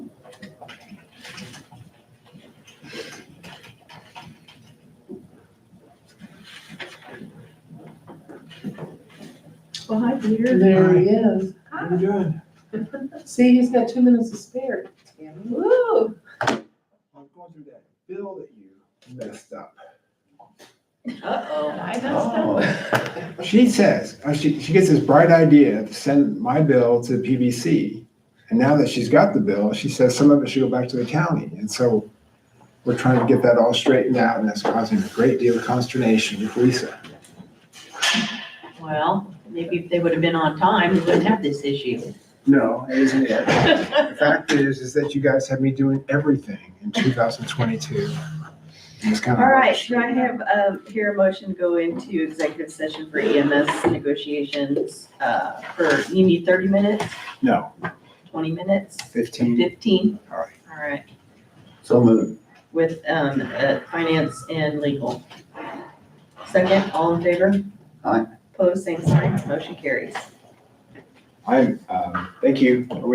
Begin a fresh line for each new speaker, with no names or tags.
Well, hi, Peter.
There he is.
Hi.
you doing?
See, he's got two minutes to spare. Tammy.
Woo.
I'm going through that bill that you messed up.
Uh-oh, I messed up.
Oh. She says, uh, she, she gets this bright idea to send my bill to PBC. And now that she's got the bill, she says some of it should go back to the county. And so we're trying to get that all straightened out and that's causing a great deal of consternation with Lisa.
Well, maybe if they would have been on time, we wouldn't have this issue.
No, it isn't it. The
Well,
fact is, is that you guys had me doing everything in 2022. It's kind of.
All right, should I have, um, here a motion to go into executive session for EMS negotiations, uh, for, you need thirty minutes,
No,
twenty minutes,
15.
fifteen?
All right.
All right,
So moved.
with, um, uh, finance and legal. Second, all in favor?
Aye.
Pose same sign, motion carries.
I'm, um, thank you.